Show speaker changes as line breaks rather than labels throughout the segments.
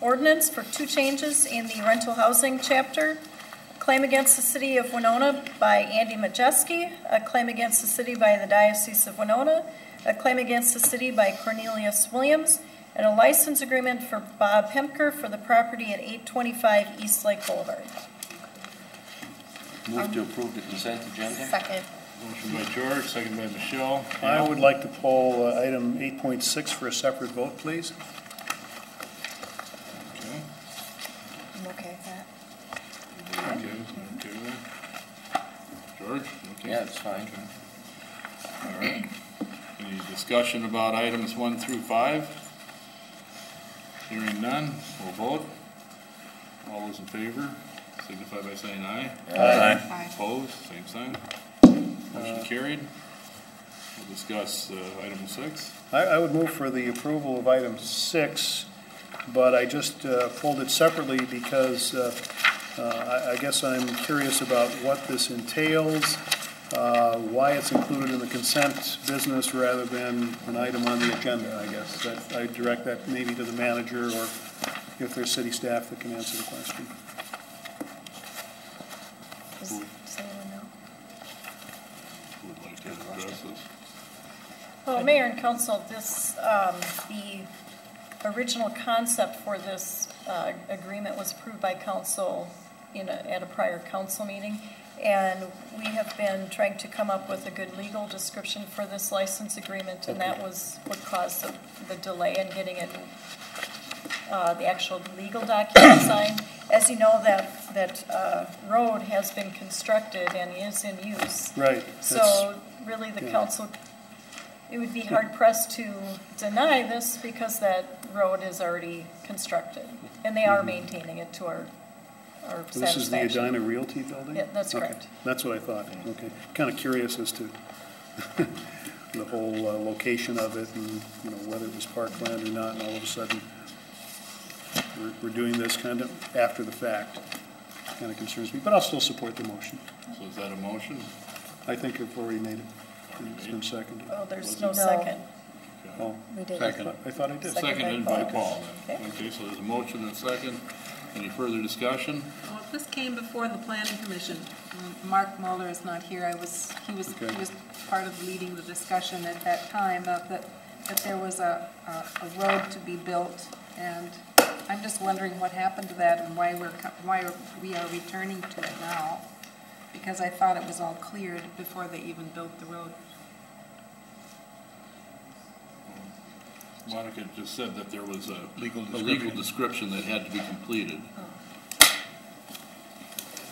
ordinance for two changes in the rental housing chapter. Claim against the city of Winona by Andy Majeski, a claim against the city by the Diocese of Winona, a claim against the city by Cornelius Williams, and a license agreement for Bob Hemker for the property at 825 East Lake Boulevard.
Move to approve the consent agenda?
Second.
Motion by George, second by Michelle.
I would like to poll uh, item 8.6 for a separate vote, please.
Okay.
I'm okay with that.
Okay, okay. George? okay.
Yeah, it's fine.
All right. Any discussion about items one through five? Hearing none, we'll vote. All those in favor, signify by saying aye. Aye. Opposed, same sign. Motion carried. We'll discuss uh, item six.
I, I would move for the approval of item six, but I just uh, pulled it separately because uh, uh, I, I guess I'm curious about what this entails, uh, why it's included in the consent business rather than an item on the agenda, I guess. That, I direct that maybe to the manager or if there's city staff that can answer the question.
Does does anyone know?
Who would like to address this?
Well, Mayor and Council, this, um, the original concept for this uh, agreement was approved by council in a, at a prior council meeting, and we have been trying to come up with a good legal description for this license agreement, and that was what caused the- the delay in getting it, uh, the actual legal document signed. As you know, that, that uh, road has been constructed and is in use.
Right. that's-
So really, the
Yeah.
council, it would be hard pressed to deny this because that road is already constructed. And they are maintaining it to our, our
Mm-hmm. So This is the
satisfaction.
Edina Realty building?
Yeah, that's
Okay,
correct.
That's what I thought, okay. Kind of curious as to the whole uh, location of it and, you know, whether it was parkland or not, and all of a sudden, we're, we're doing this kind of after the fact. Kind of concerns me, but I'll still support the motion.
So is that a motion?
I think I've already made it, and it's been seconded.
Oh, there's no
No.
second.
Oh,
We did.
I thought- I thought I did.
Second.
Seconded by
Seconded by
Paul. then.
Okay.
Okay, so there's a motion and a second. Any further discussion?
Well, if this came before the planning commission. M- Mark Muller is not here, I was, he was, he
Okay.
was part of leading the discussion at that time of that, that there was a, a- a road to be built, and I'm just wondering what happened to that and why we're, co- why we are returning to it now, because I thought it was all cleared before they even built the road.
Monica just said that there was a legal, a legal description that had to be completed.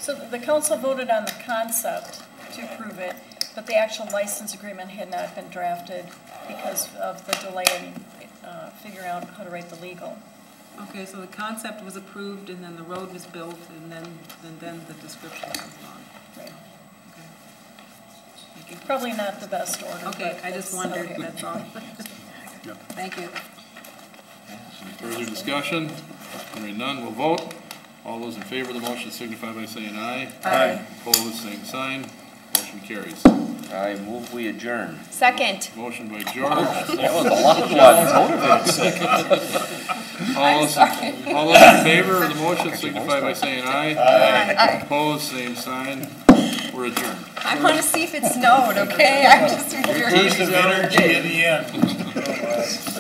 So the council voted on the concept to approve it, but the actual license agreement had not been drafted because of the delay in uh, figuring out how to write the legal.
Okay, so the concept was approved, and then the road was built, and then, and then the description comes along. Okay. Thank you.
Probably not the best order.
Okay,
but
I just
it's-
wondered,
okay.
that's all.
Yeah.
Thank you.
Any further discussion? Hearing none, we'll vote. All those in favor of the motion signify by saying aye.
Aye.
Opposed, same sign. Motion carries.
I move we adjourn.
Second.
Motion by George.
That was a lot of motivated.
All those, all those in favor of the motion signify by saying aye. Aye. Opposed, same sign. We're adjourned.
I want to see if it snowed, okay? I'm just curious.
Piece of energy in the end.